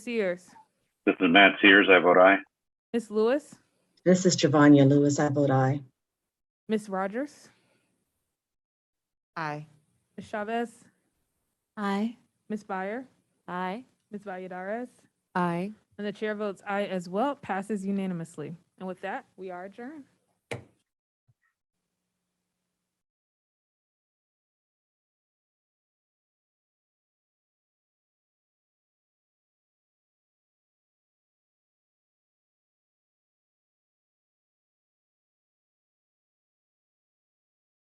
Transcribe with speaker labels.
Speaker 1: Sears.
Speaker 2: This is Matt Sears. I vote aye.
Speaker 1: Ms. Lewis,
Speaker 3: This is Javonia Lewis. I vote aye.
Speaker 1: Ms. Rogers,
Speaker 4: Aye.
Speaker 1: Ms. Chavez,
Speaker 4: Aye.
Speaker 1: Ms. Byer,
Speaker 4: Aye.
Speaker 1: Ms. Valladares,
Speaker 4: Aye.
Speaker 1: and the chair votes aye as well, passes unanimously. And with that, we are adjourned.